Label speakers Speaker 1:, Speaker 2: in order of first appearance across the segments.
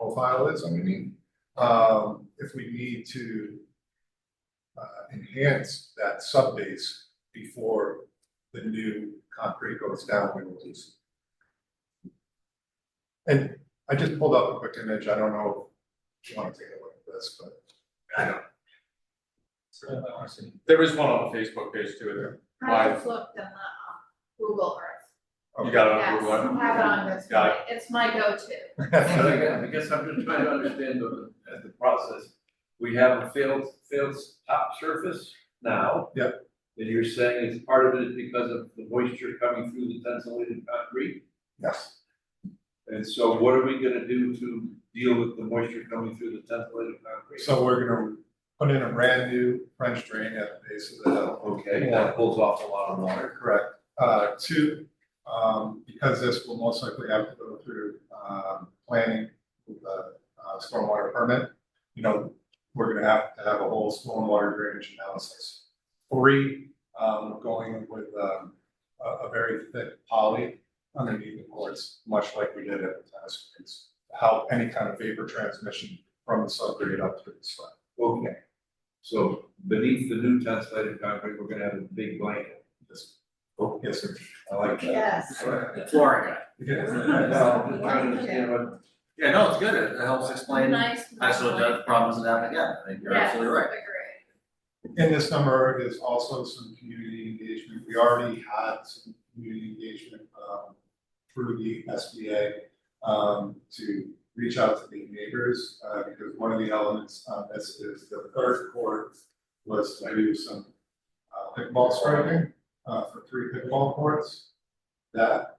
Speaker 1: profile is, I mean, um, if we need to uh, enhance that subbase before the new concrete goes down, we will release. it. And I just pulled up a quick image, I don't know if you wanna take a look at this, but. I don't.
Speaker 2: There is one on the Facebook page too,
Speaker 3: I
Speaker 2: Why?
Speaker 3: just looked in the um, Google Earth.
Speaker 2: you got it on
Speaker 3: Yes,
Speaker 2: Uh, Google.
Speaker 3: I have it on this,
Speaker 2: Got
Speaker 3: one. it's my go-to.
Speaker 4: But I guess, I guess I'm just trying to understand the, uh, the process. We have a failed, failed top surface now. Yep. And you're saying it's part of it is because of the moisture coming through the tensile concrete?
Speaker 1: Yes,
Speaker 4: And so what are we gonna do to deal with the moisture coming through the tensile concrete?
Speaker 1: so we're gonna put in a brand new French drain at the base of the hill.
Speaker 4: Okay, that pulls off a lot of water.
Speaker 1: Correct. Uh, two, um, because this will most likely have to go through, um, planning, with the, uh, stormwater permit. You know, we're gonna have to have a whole stormwater drainage analysis. Three, um, we're going with, um, a, a very thick poly underneath the courts, much like we did at the tennis courts. to Help any kind of vapor transmission from the subgrade up to the slab.
Speaker 4: Okay. So beneath the new tensile concrete, we're gonna have a big blanket.
Speaker 1: Yes. Oh, Yes, sir.
Speaker 4: I like that.
Speaker 3: Yes.
Speaker 2: right? Florida.
Speaker 4: Now, I'm just trying to understand what
Speaker 2: Yeah, no, it's good, it it helps explain,
Speaker 3: Nice.
Speaker 2: I still have problems in that, yeah, I think you're absolutely right.
Speaker 3: Yes,
Speaker 1: In this number is also some community engagement. We already had some community engagement um, through the SBA um, to reach out to the neighbors, uh, because one of the elements on this is the third court was to do some uh, pickleball striking uh, for three pickleball courts. That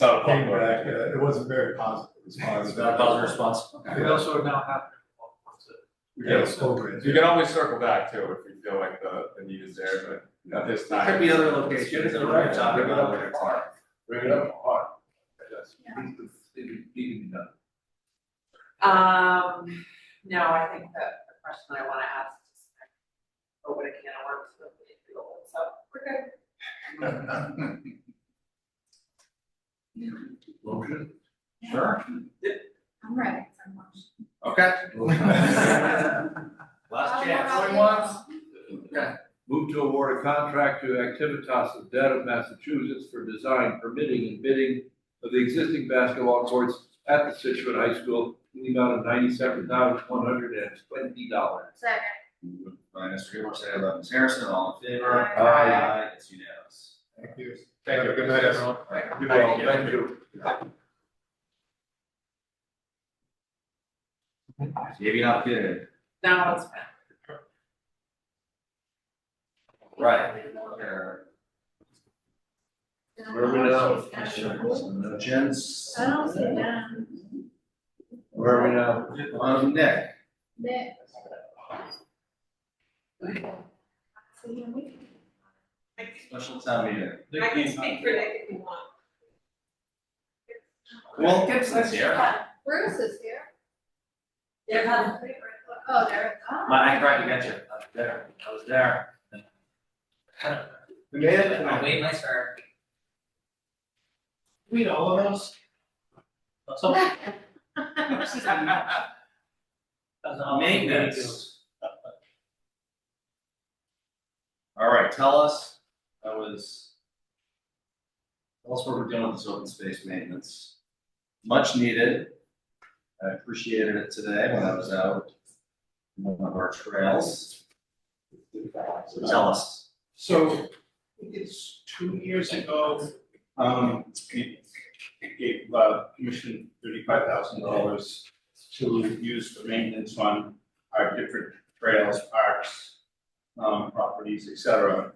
Speaker 2: Not
Speaker 1: came back, uh, it wasn't very positive response.
Speaker 2: Positive response.
Speaker 1: We
Speaker 2: also now
Speaker 1: Yeah, so great.
Speaker 2: You can always circle back too, if you feel like the, the need is there, but at this time.
Speaker 4: Could be other locations that we're not talking about where it's hard. Bring it up hard. That's-
Speaker 3: Yeah.
Speaker 4: it- it- it can be done.
Speaker 5: Um, no, I think that the question that I wanna ask is like, open a can of worms, but we didn't do it, so we're good.
Speaker 4: Motion?
Speaker 2: Sure.
Speaker 3: I'm ready for lunch.
Speaker 2: Okay.
Speaker 3: I'll
Speaker 2: Last
Speaker 3: go out
Speaker 2: chance.
Speaker 3: and-
Speaker 4: Move to award a contract to Activitas of Dead of Massachusetts for design permitting and bidding of the existing basketball courts at the Situate High School in the amount of ninety-seven thousand one hundred and twenty dollars.
Speaker 3: Second.
Speaker 6: Moved By Mr. Gilmore, second by Ms. Harrison, all in favor?
Speaker 3: Aye.
Speaker 6: Aye. It's unanimous.
Speaker 1: Thank you.
Speaker 2: Thank you,
Speaker 1: Good night, everyone.
Speaker 2: Good night.
Speaker 4: Thank you.
Speaker 6: Maybe not good.
Speaker 5: Now it's.
Speaker 6: Right. There.
Speaker 3: And
Speaker 4: Where are we now?
Speaker 3: I don't see
Speaker 6: Gents.
Speaker 3: that.
Speaker 4: Where are we now?
Speaker 6: Um, Nick.
Speaker 3: Nick. See you in a week.
Speaker 6: Special town meeting.
Speaker 5: I can speak for Nick if you want.
Speaker 6: Well, Gibson's here.
Speaker 3: Bruce is here.
Speaker 5: Yeah, come.
Speaker 3: Oh, there, oh.
Speaker 6: My, I tried to get you. I was there. I was there. We made it.
Speaker 7: I'm way nicer. Read all of those. That's all. That's all.
Speaker 6: Maintenance. All right, tell us, that was. Tell us what we're doing with this open space maintenance. Much needed. I appreciated it today when I was out. on One of our trails. So Tell us.
Speaker 7: So it's two years ago, um, it, it gave, uh, commission thirty-five thousand dollars to use for maintenance on our different trails, parks, um, properties, et cetera.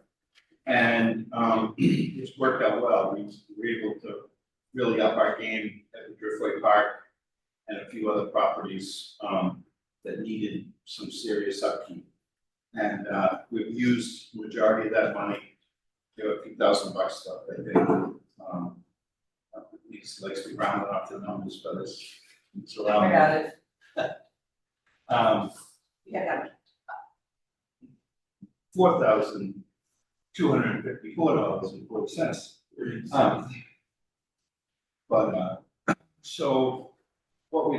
Speaker 7: And, um, it's worked out well. We were able to really up our game at the Driftway Park and a few other properties, um, that needed some serious upkeep. And uh we've used majority of that money, there were a few thousand bucks left, I think. Um, uh, These likes to round it up to numbers, but it's it's
Speaker 5: I
Speaker 7: around.
Speaker 5: got it,
Speaker 7: Um
Speaker 5: yeah, I got it.
Speaker 7: four thousand two hundred and fifty-four dollars and forty cents. Um. But uh, so what we